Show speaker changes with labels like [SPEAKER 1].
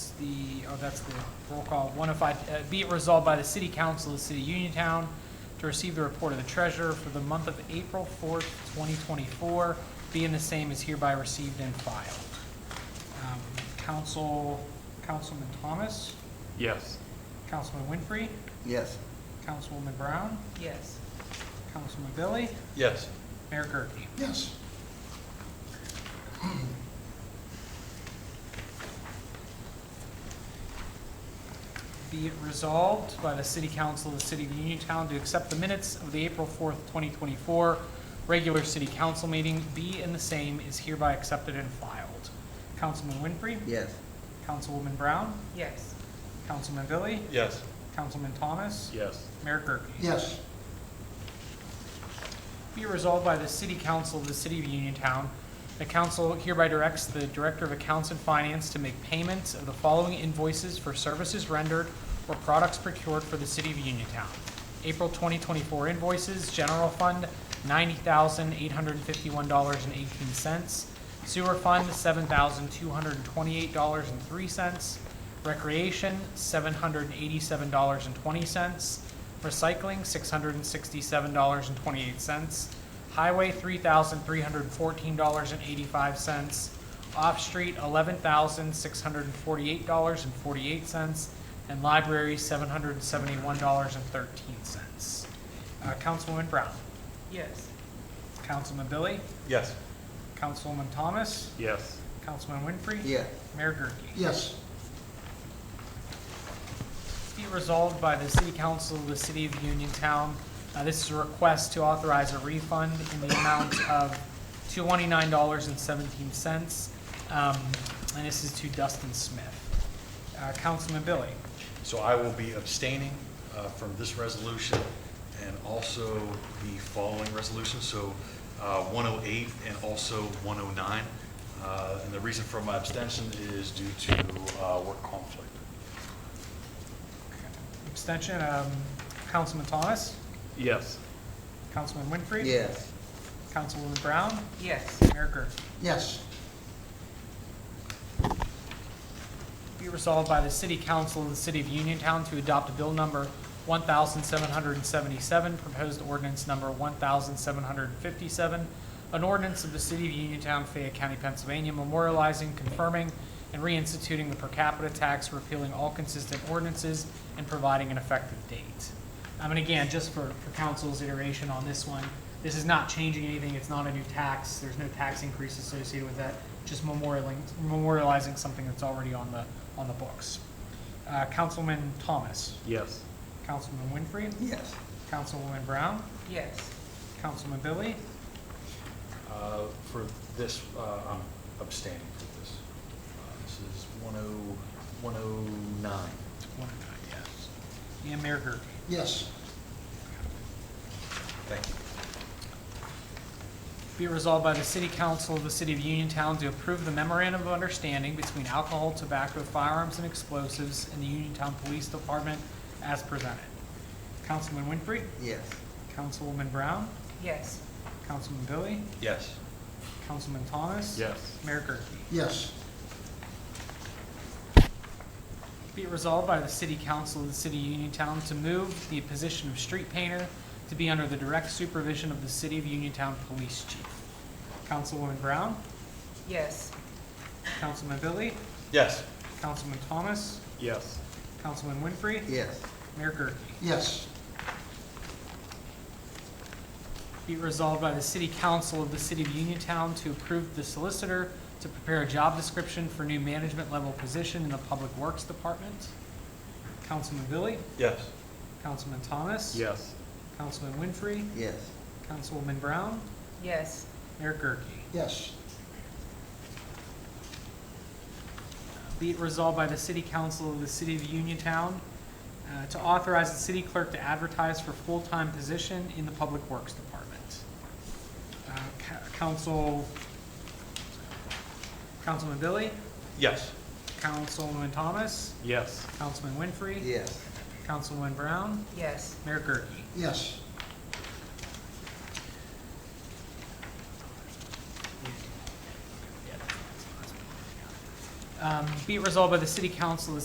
[SPEAKER 1] the, oh, that's the roll call, one oh five, uh, be it resolved by the City Council of the City of Uniontown to receive the report of the treasurer for the month of April fourth, twenty twenty-four, being the same is hereby received and filed. Um, Council, Councilman Thomas,
[SPEAKER 2] Yes.
[SPEAKER 1] Councilman Winfrey,
[SPEAKER 3] Yes.
[SPEAKER 1] Councilwoman Brown,
[SPEAKER 4] Yes.
[SPEAKER 1] Councilman Billy,
[SPEAKER 2] Yes.
[SPEAKER 1] Mayor Gurke.
[SPEAKER 3] Yes.
[SPEAKER 1] Be it resolved by the City Council of the City of Uniontown to accept the minutes of the April 4th, 2024 regular City Council meeting. Be and the same is hereby accepted and filed. Councilman Winfrey?
[SPEAKER 3] Yes.
[SPEAKER 1] Councilwoman Brown?
[SPEAKER 4] Yes.
[SPEAKER 1] Councilman Billy?
[SPEAKER 2] Yes.
[SPEAKER 1] Councilman Thomas?
[SPEAKER 2] Yes.
[SPEAKER 1] Mayor Gurke?
[SPEAKER 3] Yes.
[SPEAKER 1] Be resolved by the City Council of the City of Uniontown. The council hereby directs the Director of Accounts and Finance to make payments of the following invoices for services rendered or products procured for the City of Uniontown. April 2024 invoices, General Fund, $90,851.18. Sewer Fund, $7,228.03. Recreation, $787.20. Recycling, six hundred and sixty-seven dollars and twenty-eight cents. Highway, three thousand three hundred and fourteen dollars and eighty-five cents. Off-street, eleven thousand six hundred and forty-eight dollars and forty-eight cents. And library, seven hundred and seventy-one dollars and thirteen cents. Uh, Councilwoman Brown,
[SPEAKER 4] Yes.
[SPEAKER 1] Councilman Billy,
[SPEAKER 2] Yes.
[SPEAKER 1] Councilwoman Thomas,
[SPEAKER 2] Yes.
[SPEAKER 1] Councilman Winfrey.
[SPEAKER 3] Yeah.
[SPEAKER 1] Mayor Gurke.
[SPEAKER 3] Yes.
[SPEAKER 1] Be resolved by the City Council of the City of Uniontown. Uh, This is a request to authorize a refund in the amount of $229.17. Um, And this is to Dustin Smith. Uh, Councilman Billy?
[SPEAKER 5] So I will be abstaining uh, from this resolution and also the following resolutions, so uh, 108 and also 109. Uh, And the reason for my abstention is due to uh, work conflict.
[SPEAKER 1] Abstention, um, Councilman Thomas?
[SPEAKER 2] Yes.
[SPEAKER 1] Councilman Winfrey?
[SPEAKER 3] Yes.
[SPEAKER 1] Councilwoman Brown?
[SPEAKER 4] Yes.
[SPEAKER 1] Mayor Gurke?
[SPEAKER 3] Yes.
[SPEAKER 1] Be resolved by the City Council of the City of Uniontown to adopt a Bill Number 1,777, Proposed Ordinance Number 1,757, an ordinance of the City of Uniontown, Fayette County, Pennsylvania, memorializing, confirming, and reinstituting the per capita tax, repealing all consistent ordinances, and providing an effective date. Um, And again, just for for council's iteration on this one, this is not changing anything, it's not a new tax, there's no tax increase associated with that, just memorialing, memorializing something that's already on the, on the books. Uh, Councilman Thomas,
[SPEAKER 2] Yes.
[SPEAKER 1] Councilman Winfrey,
[SPEAKER 3] Yes.
[SPEAKER 1] Councilwoman Brown,
[SPEAKER 4] Yes.
[SPEAKER 1] Councilman Billy,
[SPEAKER 5] Uh, For this, uh, I'm abstaining for this. Uh, This is oh, 10 109.
[SPEAKER 1] one and nine, yes, and Mayor Gerke.
[SPEAKER 3] Yes.
[SPEAKER 5] Thank you.
[SPEAKER 1] Be it resolved by the City Council of the City of Uniontown to approve the memorandum of understanding between alcohol, tobacco, firearms, and explosives and the Uniontown Police Department as presented. Councilman Winfrey,
[SPEAKER 3] Yes.
[SPEAKER 1] Councilwoman Brown,
[SPEAKER 4] Yes.
[SPEAKER 1] Councilman Billy,
[SPEAKER 5] Yes.
[SPEAKER 1] Councilman Thomas.
[SPEAKER 2] Yes.
[SPEAKER 1] Mayor Gurke.
[SPEAKER 3] Yes.
[SPEAKER 1] Be it resolved by the City Council of the City of Uniontown to move the position of street painter to be under the direct supervision of the City of Uniontown Police Chief. Councilwoman Brown,
[SPEAKER 4] Yes.
[SPEAKER 1] Councilman Billy,
[SPEAKER 5] Yes.
[SPEAKER 1] Councilman Thomas,
[SPEAKER 2] Yes.
[SPEAKER 1] Councilman Winfrey,
[SPEAKER 3] Yes.
[SPEAKER 1] Mayor Gurke.
[SPEAKER 3] Yes.
[SPEAKER 1] Be it resolved by the City Council of the City of Uniontown to approve the solicitor to prepare a job description for new management level position in the Public Works Department. Councilman Billy,
[SPEAKER 5] Yes.
[SPEAKER 1] Councilman Thomas.
[SPEAKER 2] Yes.
[SPEAKER 1] Councilman Winfrey,
[SPEAKER 3] Yes.
[SPEAKER 1] Councilwoman Brown,
[SPEAKER 4] Yes.
[SPEAKER 1] Mayor Gurke.
[SPEAKER 3] Yes.
[SPEAKER 1] Be it resolved by the City Council of the City of Uniontown uh, to authorize the city clerk to advertise for full-time position in the Public Works Department. Uh, Ca- Council, Councilman Billy,
[SPEAKER 5] Yes.
[SPEAKER 1] Councilwoman Thomas,
[SPEAKER 2] Yes.
[SPEAKER 1] Councilman Winfrey,
[SPEAKER 3] Yes.
[SPEAKER 1] Councilwoman Brown,
[SPEAKER 4] Yes.
[SPEAKER 1] Mayor Gurke.
[SPEAKER 3] Yes.
[SPEAKER 1] Um, Be it resolved by the City Council of the